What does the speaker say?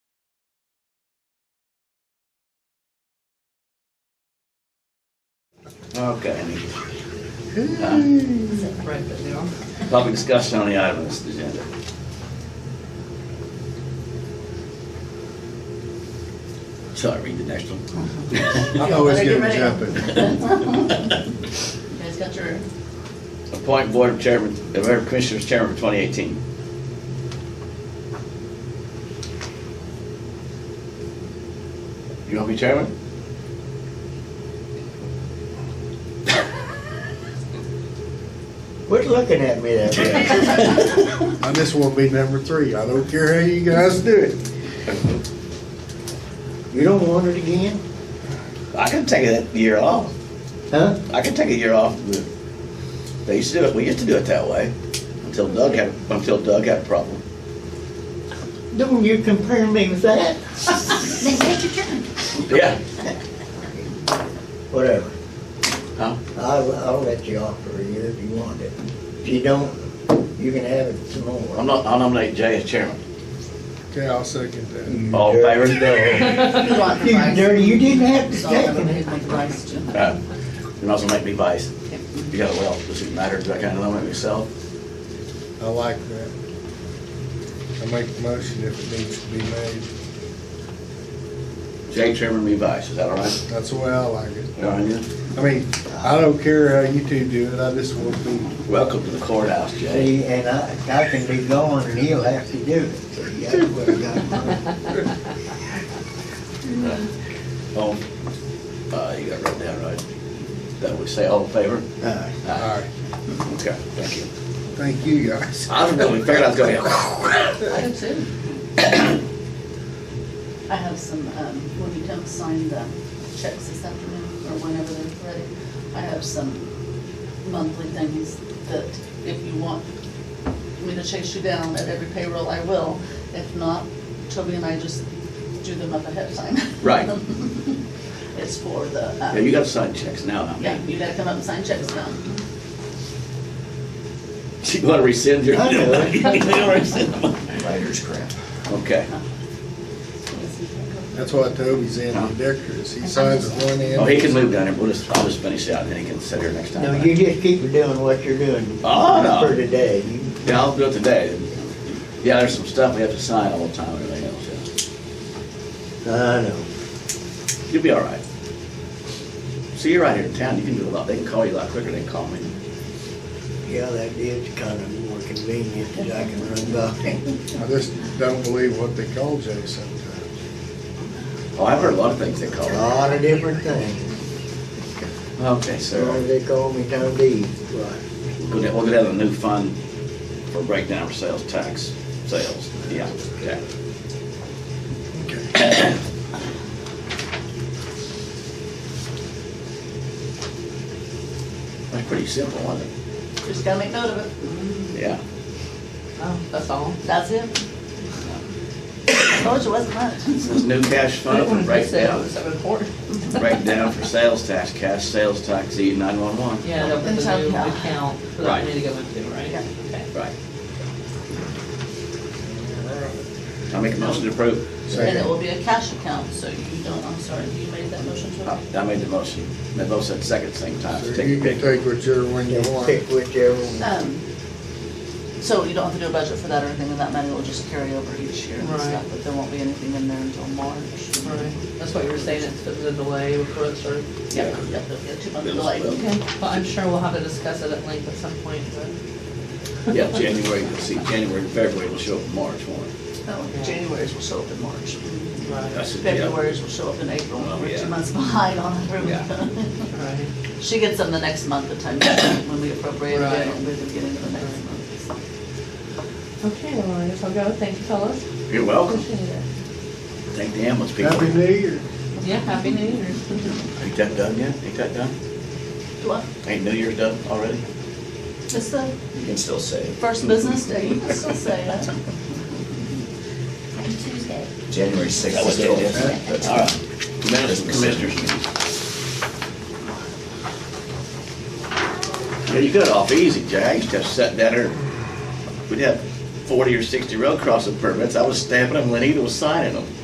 Okay. Is it right now? Public discussion on the item on this agenda. Shall I read the next one? I always Yeah, get ready. it jumping. You guys got your, Appoint Board of Chairman, of Board of Commissioners Chairman for 2018. You want to be chairman? Quit looking at me that way. I just want to be number three. I don't care how you guys do it. You don't want it again? I can take a year off. Huh? I can take a year off. the- They used to do it, we used to do it that way until Doug had, until Doug had a problem. Don't you compare me with that? then take your turn. Yeah. Whatever. Huh? I'll, I'll let you off for a year if you want it. If you don't, you can have it some more. I'm not, I'll nominate Jay as chairman. Okay, I'll second that. You All in dirty favor? dog. You want the You rice? dirty, you didn't have to It's all take gonna be it. my rice, Jim. Uh, You might as well make me vice. You got a well, does it matter, do I kind of nominate myself? I like that. I make the motion if it needs to be made. Jay chairman, me vice, is that all right? That's the way I like it. All right, yeah. I mean, I don't care how you two do it. I just want to be. Welcome to the courthouse, Jay. See, and I, I can be gone and he'll have to do it. See, that's what I got. Oh, uh, you got it wrote down right. That we say all in favor? Uh, All right. Okay, thank you. Thank you, guys. I don't know, we figured I was going to. I do too. I have some, um, when we don't sign the checks this afternoon, or whenever they're ready, I have some monthly things that if you want me to chase you down at every payroll, I will. If not, Toby and I just do them up ahead of time. Right. It's for the, Yeah, you um, got to sign checks now, I yeah, mean. you gotta come up and sign checks now. You want to rescind your? I know. You wanna rescind them? Writer's crap. Okay. That's why Toby's ambidextrous. He signs with one hand. Oh, he can move down here, we'll just, I'll just finish out, and then he can sit here next time. No, you just keep doing what you're doing. Oh, no. For today. You- Yeah, I'll do it today. Yeah, there's some stuff we have to sign all the time and everything else, I know. yeah. You'll be all right. See, you're right here in town, you can do a lot, they can call you a lot quicker than they call me. Yeah, that is kind of more convenient that I can run by. I just don't believe what they call Jay sometimes. Oh, I've heard a lot of things they call A me. lot of different things. Okay, Or so, They call me Tom D. we'll get, we'll get out a new fund for breakdown for sales tax, sales, yeah, yeah. Okay. That's pretty simple, wasn't it? Just gotta make note of it. Yeah. Oh, That's all? That's it. I told you it wasn't much. This is new cash fund for breakdown, Seven, seven, four. breakdown for sales tax, cash sales tax, E nine-one-one. Yeah, that was the Until- new account for Right. that money to go into, right? Yeah. Okay. Right. I make a motion to approve. And it Second. will be a cash account, so you don't, I'm sorry, you made that motion Oh. to. I I made the motion. They both said second same time. So Take a You can pick. take whichever one you Just want. pick whichever one. Um, so you don't have to do a budget for that or anything, and that money will just carry over each year and Right. stuff, but there won't be anything in there until March. Right, that's what you were saying, it's been a delay before it started. Yep, yep, there'll be a two month Bills delay. will. Okay, well, I'm sure we'll have to discuss it at length at some point, but. Yeah, January, you'll see, January, and February will show up in March one. No, Oh, January's will show up in March. Right. That's it, yeah. February's will show up in April, Oh, we're yeah. two months behind on everything. Right. She gets them the next month, the time, when we appropriate it, Right. and we're beginning of the next month. so. Okay, well, I guess I'll go, thank you fellas, You're welcome. appreciate it. Thank the ambulance people. Happy New Year. Yeah, happy New Year's. Ain't that done yet? Ain't that done? Do I- Ain't New Year's done already? It's the You can still say it. first business day, you can still say that. Tuesday. January sixth. All right. Minutes, commissioners. Yeah, you got off easy, Jack. You just have sat down there. We'd have forty or sixty road crossing permits. I was stamping them, Lenita was signing them.